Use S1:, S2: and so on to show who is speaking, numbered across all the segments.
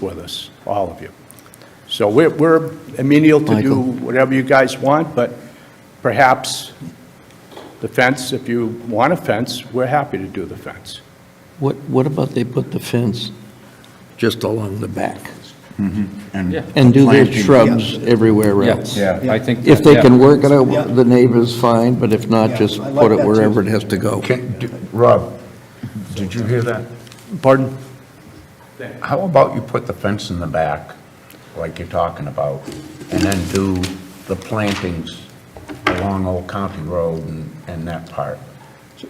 S1: with us, all of you. So we're, we're amenable to do
S2: Michael.
S1: whatever you guys want, but perhaps the fence, if you want a fence, we're happy to do the fence.
S2: What, what about they put the fence just along the back?
S3: Mm-hmm.
S2: And do their shrubs everywhere else?
S4: Yeah, I think.
S2: If they
S4: yeah.
S2: can work it out, with the neighbors, fine, but if not, just
S3: I like
S2: put it
S3: that too.
S2: wherever it has to go.
S5: Can, d- Rob, did you hear that?
S1: Pardon?
S5: How about you put the fence in the back, like you're talking about, and then do the plantings along Old County Road and, and that part?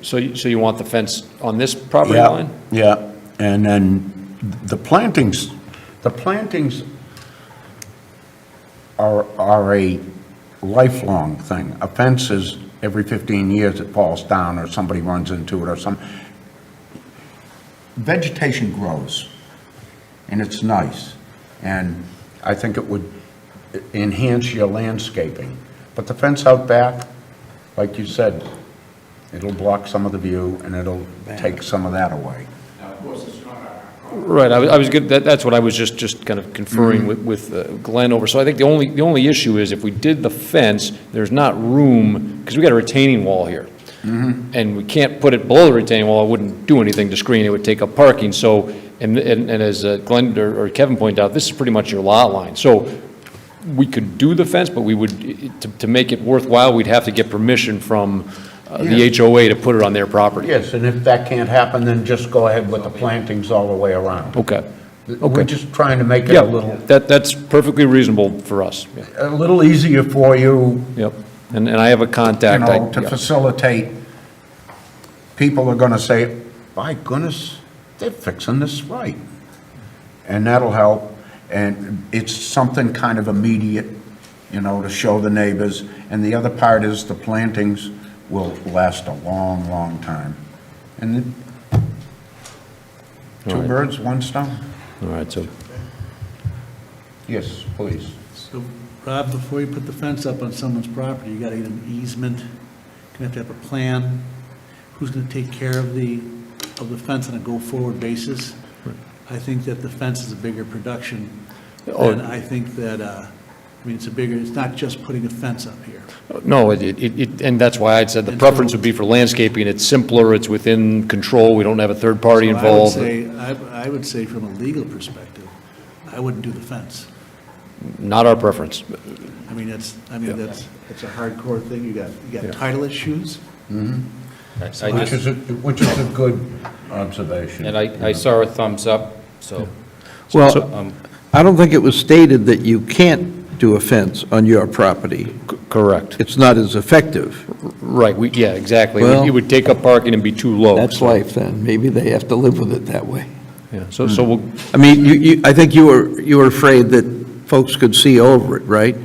S4: So, you- so you want the fence on this property line?
S5: Yeah, and then the plantings, the plantings are, are a lifelong thing. A fence is every 15 years it falls down or somebody runs into it or some. Vegetation grows and it's nice. And I think it would enhance your landscaping. But the fence out back, like you said, it'll block some of the view and it'll take some of that away.
S4: Right, I was, I was, good- that, that's what I was just, just kind of conferring with, with uh, Glenn over. So I think the only, the only issue is if we did the fence, there's not room, because we got a retaining wall here. And we can't put it below the retaining wall, it wouldn't do anything to screen, it would take up parking, so, and, and and as uh, Glenn or or Kevin pointed out, this is pretty much your lot line. So we could do the fence, but we would, to, to make it worthwhile, we'd have to get permission from uh, the HOA to put it on their property.
S5: Yes, and if that can't happen, then just go ahead with the plantings all the way around.
S4: Okay.
S5: We're just trying to make it a
S4: Yeah,
S5: little,
S4: that, that's perfectly reasonable for us, yeah,
S5: a little easier for you,
S4: yep. And, and I have a
S5: you
S4: contact,
S5: know,
S4: I,
S5: to
S4: yeah.
S5: facilitate. People are gonna say, by goodness, they're fixing this right. And that'll help, and it's something kind of immediate, you know, to show the neighbors. And the other part is the plantings will last a long, long time. And it- two
S4: Alright.
S5: birds, one stone?
S4: all right, so,
S5: Yes, please.
S6: So, Rob, before you put the fence up on someone's property, you gotta get an easement, you're gonna have to have a plan, who's gonna take care of the, of the fence on a go-forward basis. I think that the fence is a bigger production,
S4: Oh.
S6: and I think that, uh, I mean, it's a bigger, it's not just putting a fence up here.
S4: no, it, it, it- and that's why I'd said the preference would be for landscaping, it's simpler, it's within control, we don't have a third party
S6: So I would
S4: involved.
S6: say, I, I would say from a legal perspective, I wouldn't do the fence.
S4: Not our preference,
S6: I mean, it's, I mean, that's, it's a hardcore thing, you got, you got title issues.
S5: Which is, a- which is a good observation.
S7: And I, I saw a thumbs up, so. um,
S2: Well, I don't think it was stated that you can't do a fence on your property.
S4: C- correct,
S2: It's not as effective.
S4: right, we, yeah, exactly, It would-
S2: Well-
S4: it would take up parking and be too low.
S2: That's
S4: Oh, so-
S2: life then, maybe they have to live with it that way.
S4: Yeah, so, so we'll,
S2: I mean, you, you, I think you were, you were afraid that folks could see over it, right?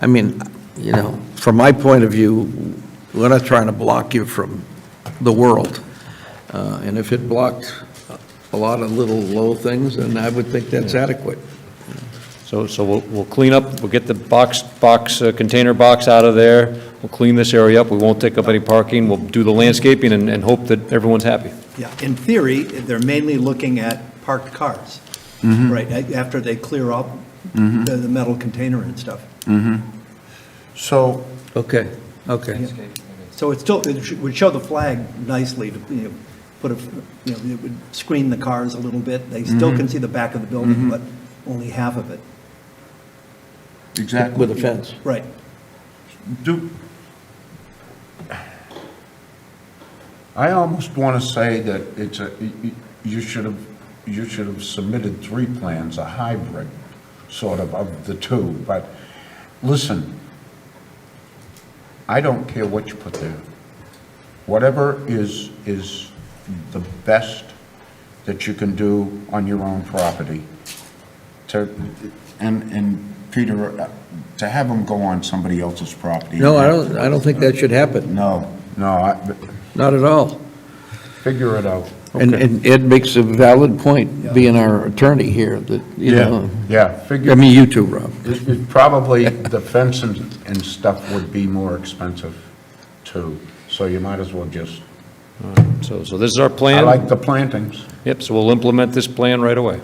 S2: I mean, you know, from my point of view, we're not trying to block you from the world. Uh, and if it blocked a lot of little low things, then I would think that's adequate.
S4: So, so we'll, we'll clean up, we'll get the box, box, uh, container box out of there, we'll clean this area up, we won't take up any parking, we'll do the landscaping and, and hope that everyone's happy.
S3: Yeah, in theory, they're mainly looking at parked cars, right, a- after they clear up the the metal container and stuff.
S5: So,
S2: Okay, okay.
S3: So it's still, it sh- would show the flag nicely to, you know, put a, you know, it would screen the cars a little bit. They still can see the back of the building, but only half of it.
S5: exactly.
S2: With a fence.
S3: Right.
S5: Do, I almost want to say that it's a, you should have, you should have submitted three plans, a hybrid sort of of the two, but listen, I don't care what you put there. Whatever is, is the best that you can do on your own property to, and, and Peter, uh, to have them go on somebody else's property.
S2: No, I don't, I don't think that should happen,
S5: No, no, I-
S2: not at all.
S5: figure it out.
S2: And, and Ed makes a valid point, being our attorney here, that, you know,
S5: Yeah,
S2: I
S5: figure,
S2: mean, you too, Rob.
S5: it- it probably the fence and, and stuff would be more expensive too, so you might as well just,
S4: So, so this is our
S5: I
S4: plan.
S5: like the plantings.
S4: Yep, so we'll implement this plan right away.